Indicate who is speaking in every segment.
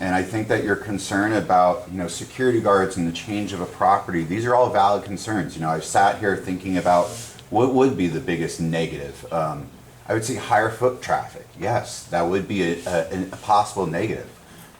Speaker 1: And I think that your concern about, you know, security guards and the change of a property, these are all valid concerns. You know, I've sat here thinking about what would be the biggest negative. Um, I would say higher foot traffic. Yes, that would be a, a, a possible negative.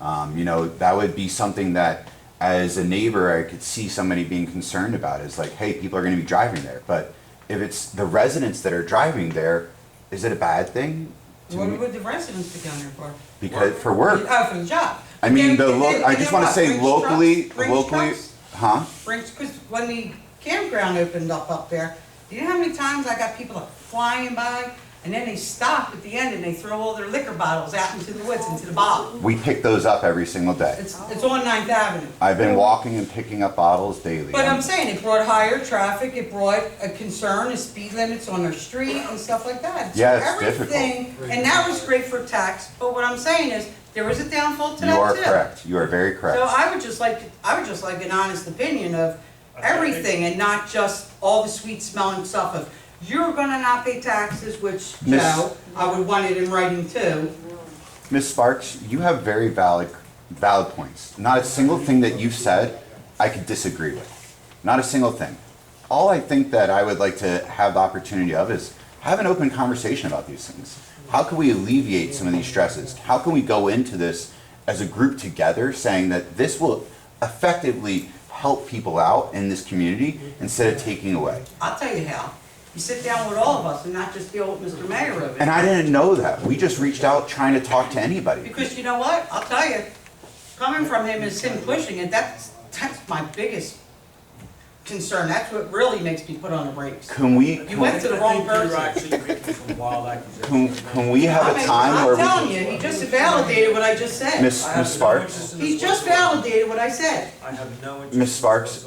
Speaker 1: Um, you know, that would be something that as a neighbor, I could see somebody being concerned about is like, hey, people are going to be driving there. But if it's the residents that are driving there, is it a bad thing? To
Speaker 2: What
Speaker 1: me-
Speaker 2: would the residents be down there for?
Speaker 1: Because- for work.
Speaker 2: Oh, for the job.
Speaker 1: I mean,
Speaker 2: And-
Speaker 1: the
Speaker 2: and
Speaker 1: lo-
Speaker 2: then-
Speaker 1: I
Speaker 2: and
Speaker 1: just
Speaker 2: then
Speaker 1: want to say
Speaker 2: what? Brings
Speaker 1: locally,
Speaker 2: trucks- brings
Speaker 1: locally,
Speaker 2: trucks?
Speaker 1: huh?
Speaker 2: Brings, because when the campground opened up up there, do you know how many times I got people like flying by? And then they stop at the end and they throw all their liquor bottles out into the woods, into the bog.
Speaker 1: We pick those up every single day.
Speaker 2: It's, it's on Ninth Avenue.
Speaker 1: I've been walking and picking up bottles daily.
Speaker 2: But I'm saying, it brought higher traffic, it brought a concern, of speed limits on our street and stuff like that. So
Speaker 1: Yeah, it's difficult.
Speaker 2: everything- And that was great for tax, but what I'm saying is, there was a downfall to that too.
Speaker 1: You are correct. You are very correct.
Speaker 2: So I would just like, I would just like an honest opinion of everything and not just all the sweet smelling stuff of, you're gonna not pay taxes, which, you
Speaker 1: Miss-
Speaker 2: know, I would want it in writing too.
Speaker 1: Ms. Sparks, you have very valid, valid points. Not a single thing that you've said I could disagree with. Not a single thing. All I think that I would like to have the opportunity of is have an open conversation about these things. How can we alleviate some of these stresses? How can we go into this as a group together saying that this will effectively help people out in this community instead of taking away?
Speaker 2: I'll tell you how, you sit down with all of us and not just the old Mr. Mayor of
Speaker 1: And
Speaker 2: it.
Speaker 1: I didn't know that. We just reached out trying to talk to anybody.
Speaker 2: Because you know what, I'll tell you, coming from him is him pushing it, that's, that's my biggest concern, that's what really makes me put on the brakes.
Speaker 1: Can we?
Speaker 2: You went to the wrong person.
Speaker 3: I think you're actually making some wild accusations.
Speaker 1: Can, can we have
Speaker 2: I
Speaker 1: a
Speaker 2: mean,
Speaker 1: time where we
Speaker 2: I'm telling
Speaker 1: can,
Speaker 2: you, he just validated what I just said.
Speaker 1: Miss-
Speaker 3: I have
Speaker 1: Ms.
Speaker 3: no
Speaker 1: Sparks?
Speaker 3: interest in this
Speaker 2: He just
Speaker 3: whatsoever.
Speaker 2: validated what I said.
Speaker 3: I have no interest.
Speaker 1: Ms. Sparks,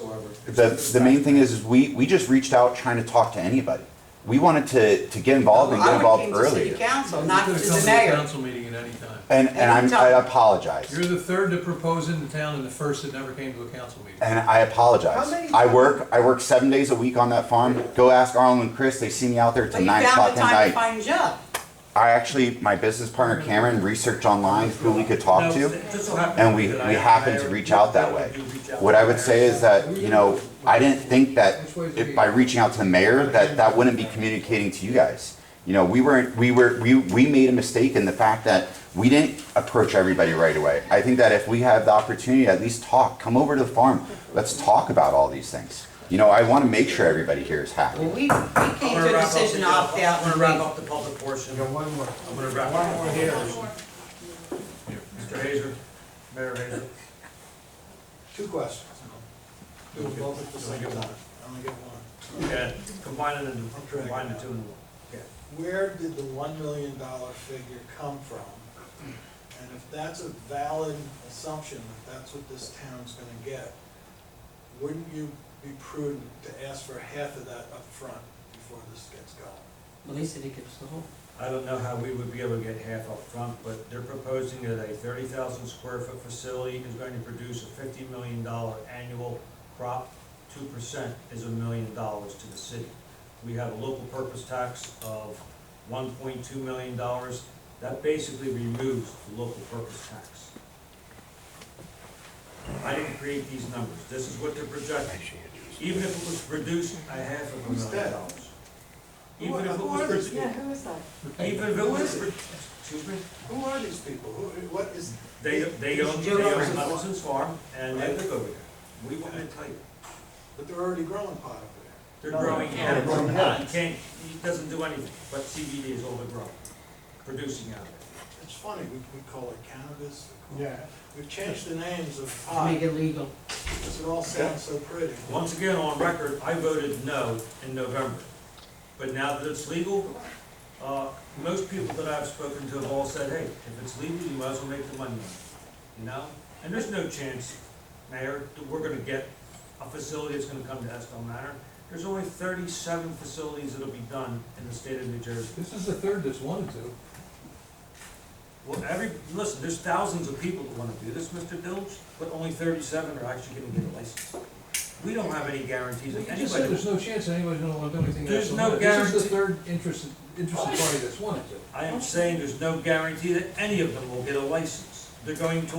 Speaker 1: the, the main thing is, is we, we just reached out trying to talk to anybody. We wanted to, to get involved and get involved
Speaker 2: I would came to city
Speaker 1: earlier.
Speaker 2: council,
Speaker 4: You
Speaker 2: not to
Speaker 4: could've
Speaker 2: the
Speaker 4: come to a
Speaker 2: mayor.
Speaker 4: council meeting at any time.
Speaker 1: And, and I'm, I
Speaker 4: You're
Speaker 1: apologize.
Speaker 4: the third to propose in the town and the first that never came to a council meeting.
Speaker 1: And I apologize.
Speaker 2: How many-
Speaker 1: I work, I work seven days a week on that farm. Go ask Arlen and Chris, they see me out there
Speaker 2: But
Speaker 1: till
Speaker 2: you
Speaker 1: nine
Speaker 2: found
Speaker 1: o'clock
Speaker 2: the
Speaker 1: at
Speaker 2: time
Speaker 1: night.
Speaker 2: to find a job.
Speaker 1: I actually, my business partner Cameron researched online who we could talk to. and we, we happened to reach out that way. What I would say is that, you know, I didn't think that if by reaching out to the mayor, that that wouldn't be communicating to you guys. You know, we weren't, we were, we, we made a mistake in the fact that we didn't approach everybody right away. I think that if we have the opportunity, at least talk, come over to the farm, let's talk about all these things. You know, I wanna make sure everybody here is
Speaker 2: Well,
Speaker 1: happy.
Speaker 2: we, we came to a decision to opt out
Speaker 3: I'm
Speaker 2: and
Speaker 3: gonna wrap
Speaker 2: leave.
Speaker 3: up the public portion.
Speaker 5: You got one more.
Speaker 3: I'm gonna wrap
Speaker 5: One
Speaker 3: up.
Speaker 5: more here.
Speaker 3: Mr. Hazer, Mayor Hazer.
Speaker 5: Two questions. Do them both at the
Speaker 3: Only
Speaker 5: same
Speaker 3: get one.
Speaker 5: time.
Speaker 3: Only get one. Yeah, combine it into, combine the two into one.
Speaker 5: Where did the one million dollar figure come from? And if that's a valid assumption, that that's what this town's gonna get, wouldn't you be prudent to ask for half of that up front before this gets going?
Speaker 2: Well, they said he gives the whole.
Speaker 3: I don't know how we would be able to get half up front, but they're proposing that a thirty thousand square foot facility is going to produce a fifty million dollar annual crop. Two percent is a million dollars to the city. We have a local purpose tax of one point two million dollars. That basically removes the local purpose tax. I didn't create these numbers. This is what they're projecting. Even if it was produced a half of a
Speaker 5: Who's
Speaker 3: million
Speaker 5: that?
Speaker 3: dollars. Even if it
Speaker 5: Who are
Speaker 3: was
Speaker 5: these
Speaker 3: produced.
Speaker 6: Yeah, who is that?
Speaker 3: Even if it was, excuse me,
Speaker 5: Who are these people? Who, what is,
Speaker 3: they, they own, they own Hudson's Farm and they live over there. We want to tell you,
Speaker 5: but they're already growing pot up there.
Speaker 3: they're growing
Speaker 5: they're
Speaker 3: animals.
Speaker 5: growing
Speaker 3: He can't, he doesn't do anything, but CBD is overgrown, producing out of it.
Speaker 5: It's funny, we, we call it cannabis. Yeah. We've changed the names of pot,
Speaker 2: Make it legal.
Speaker 5: because it all sounds so pretty.
Speaker 3: Once again, on record, I voted no in November. But now that it's legal, uh, most people that I've spoken to have all said, hey, if it's legal, you might as well make the money. on it," You know? And there's no chance, Mayor, that we're gonna get a facility that's gonna come to Estill Manor. There's only thirty-seven facilities that'll be done in the state of New Jersey.
Speaker 4: This is the third that's wanted to.
Speaker 3: Well, every, listen, there's thousands of people that wanna do this, Mr. Dilge, but only thirty-seven are actually gonna get a license. We don't have any guarantees
Speaker 4: You
Speaker 3: of
Speaker 4: just said
Speaker 3: anybody.
Speaker 4: there's no chance that anybody's gonna wanna do anything else.
Speaker 3: There's
Speaker 4: This
Speaker 3: no
Speaker 4: is
Speaker 3: guarantee.
Speaker 4: the third interested, interested party that's wanted to.
Speaker 3: I am saying there's no guarantee that any of them will get a license. They're going to